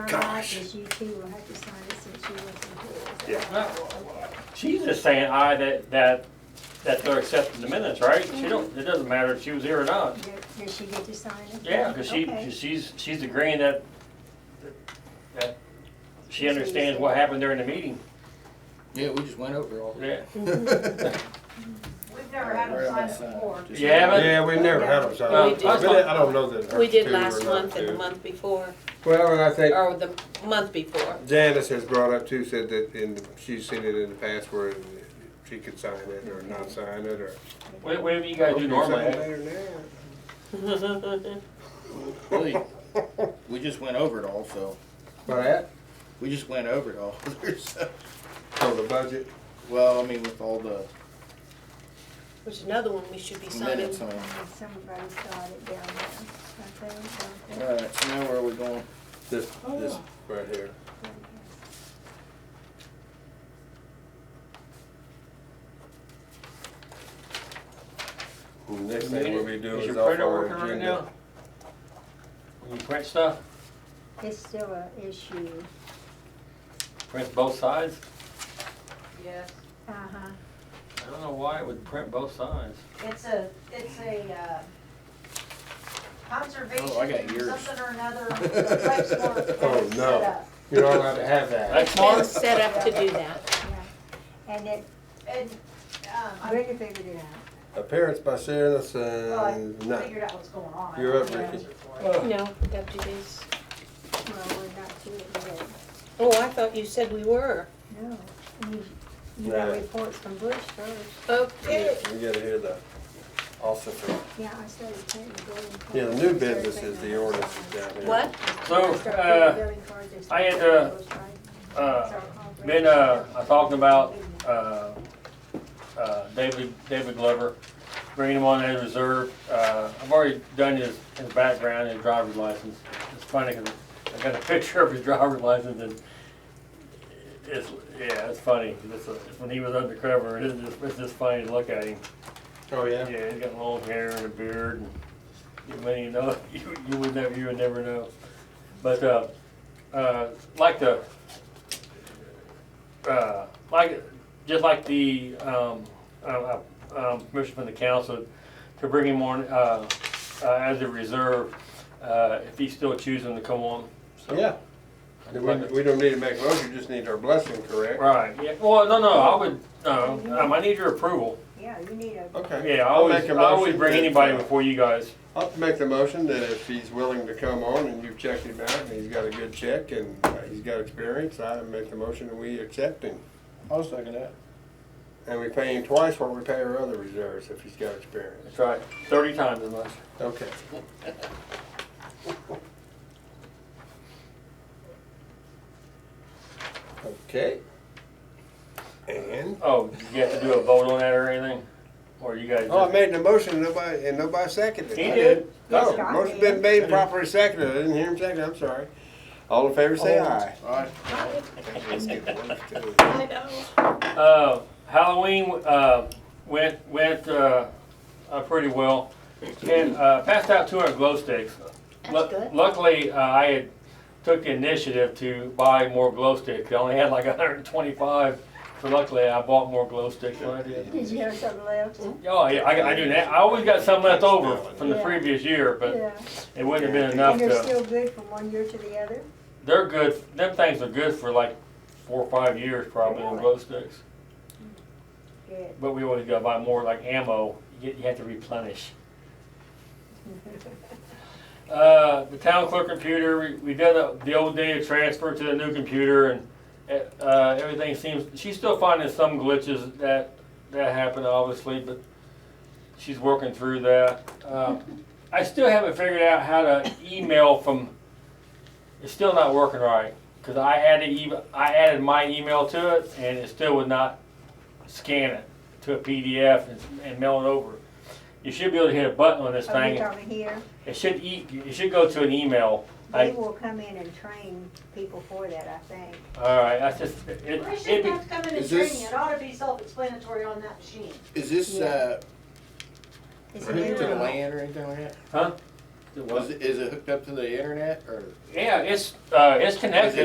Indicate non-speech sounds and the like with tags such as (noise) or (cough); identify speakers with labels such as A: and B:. A: gosh.
B: Is you two will have to sign it since you wasn't here.
A: Yeah.
C: She's just saying aye that, that, that they're accepting the minutes, right? She don't, it doesn't matter if she was here or not.
B: Does- Does she get to sign it?
C: Yeah, cause she,
B: Okay.
C: she's, she's agreeing that, that she understands what happened during the meeting.
D: Yeah, we just went
C: (laughs)
D: over all.
C: Yeah.
E: We've never had them sign it before.
C: You haven't?
A: Yeah, we never had them
C: Well,
A: signed.
F: we
A: I
F: did-
A: really- I don't know that.
F: We did
A: hers two
F: last
A: or not
F: month and the
A: two.
F: month before,
A: Well, and I think
F: or the month before.
A: Janice has brought up too, said that in, she's seen it in the past where she could sign it or not sign it or.
C: Wha- Whatever you guys do
A: Sign
C: normally.
A: it or not.
D: Really, we just went over it all, so,
A: By that,
D: we just went over it all. (laughs) So,
A: for the budget,
D: Well, I mean, with all the
F: There's another one we should be signing.
D: minutes, I mean.
B: And Somebody started down there, I think, don't
D: All right, so now where are we going?
A: this, this right here. Next thing we'll be doing
C: Is
A: is
C: your
A: off
C: printer
A: our
C: working right
A: agenda.
C: now? When you print stuff,
B: they? It's still an issue.
C: print both sides?
E: Yes,
B: Uh-huh.
C: I don't know why it would print both sides.
E: it's a, it's a, uh, conservation,
D: Oh, I got yours.
E: something or another, Lexmark that
A: Oh,
E: is
A: no.
E: set up.
A: You're not allowed to have that.
C: That's
F: Been
C: smart.
F: set up to do that.
B: And it,
E: And, um,
B: I
E: I
B: really figured it out.
A: Appearance by Sarah, that's,
E: well,
A: uh,
E: Oh, I
A: no.
E: figured out what's going on. I
A: You're up,
E: don't know the
A: Ricky.
E: answer for it.
F: No, deputies.
B: Well, we're not to it yet.
F: Oh, I thought you said we were.
B: No. You- You got
A: No.
B: reports from Bush first.
F: Okay.
A: We gotta hear the officer.
B: Yeah, I started printing the building.
A: Yeah, the
B: cards.
A: new business is the ordinance down here.
F: What?
C: So,
B: Started printing
C: uh,
B: building cards and
C: I had,
B: started
C: uh,
B: those, right?
C: uh,
B: Start all the-
C: been, uh, I talking about, uh, uh, David, David Glover, bringing him on as reserve. Uh, I've already done his, his background and driver's license. It's funny, 'cause I got a (laughs) picture of his driver's license and it's, yeah, it's funny. It's, uh, when he was undercover, it is, just- it's just funny to look at him.
A: Oh, yeah?
C: Yeah, he's got long hair and a beard, and you may you know, (laughs) you, you would never, you would never know. But, uh, uh, like the, uh, like, just like the, um, uh, uh, um, permission from the council to bring him on, uh, uh, as a reserve, uh, if he's still choosing to come on. So-
A: Yeah. Then We, we don't need to make a motion, just need our blessing, correct?
C: Right, yeah, well, no, no, I would, no, um, I need your approval.
B: Yeah, you need a,
A: Okay.
C: Yeah, I
A: I'll
C: always,
A: make
C: I
A: a
C: always
A: motion
C: bring
A: that,
C: anybody
A: uh,
C: before you guys.
A: I'll make the motion that if he's willing to come on and you've checked him out and he's got a good check and uh, he's got experience, I make the motion that we accept him.
D: I'll second that.
A: And we pay him twice what we pay our other reserves if he's got experience.
C: That's right, thirty times as much.
A: Okay. (laughs) Okay. And,
C: Oh, you have to do a vote on that or anything? Or you guys
A: oh, I
C: just?
A: made the motion, and nobody, and nobody seconded it.
C: He did.
A: No,
B: Scott
A: motion
B: did.
A: been made properly seconded, I didn't hear him second, I'm sorry. All in favor,
C: (laughs)
A: say aye.
D: All right.
A: Let's get one, two.
F: I know.
C: Uh, Halloween, uh, went, went, uh, uh, pretty well. And, uh, passed out two hundred glow sticks. Lu-
B: That's good.
C: Luckily, uh, I had took the initiative to buy more glow sticks. I only had like hundred and twenty-five, so luckily I bought more glow sticks than I did.
B: did you have something left?
C: Oh, yeah, I, I do that. I always got some left over from the
B: Yeah.
C: previous year, but
B: Yeah.
C: it wouldn't have been enough
B: And
C: to.
B: they're still good from one year to the other?
C: They're good. Them things are good for like four or five years probably on
B: Really?
C: glow sticks.
B: Good.
C: But we always gotta buy more like ammo. You, get- you have to replenish. Uh, the town clerk computer, we, we did a, the old data transfer to the new computer and, uh, uh, everything seems, she's still finding some glitches that, that happened obviously, but she's working through that. Uh, I still haven't figured out how to email from, it's still not working right. Cause I added email, I added my email to it and it still would not scan it to a PDF and, and mail it over. You should be able to hit a button on this
B: Are
C: thing
B: you talking here?
C: it should e- it should go to an email. I,
B: They will come in and train people for that, I think.
C: all right, that's just it. it
E: We shouldn't
C: it'd be-
E: have to come in and
D: Is
E: train
D: this-
E: you, it ought to be self-explanatory on that machine.
D: Is this,
B: Yeah.
D: uh,
B: It's a
D: linked to
B: new
D: the
B: one.
D: land or anything like that?
C: Huh? The what?
D: Was, it- is it hooked up to the internet or?
C: Yeah, it's, uh, it's connected.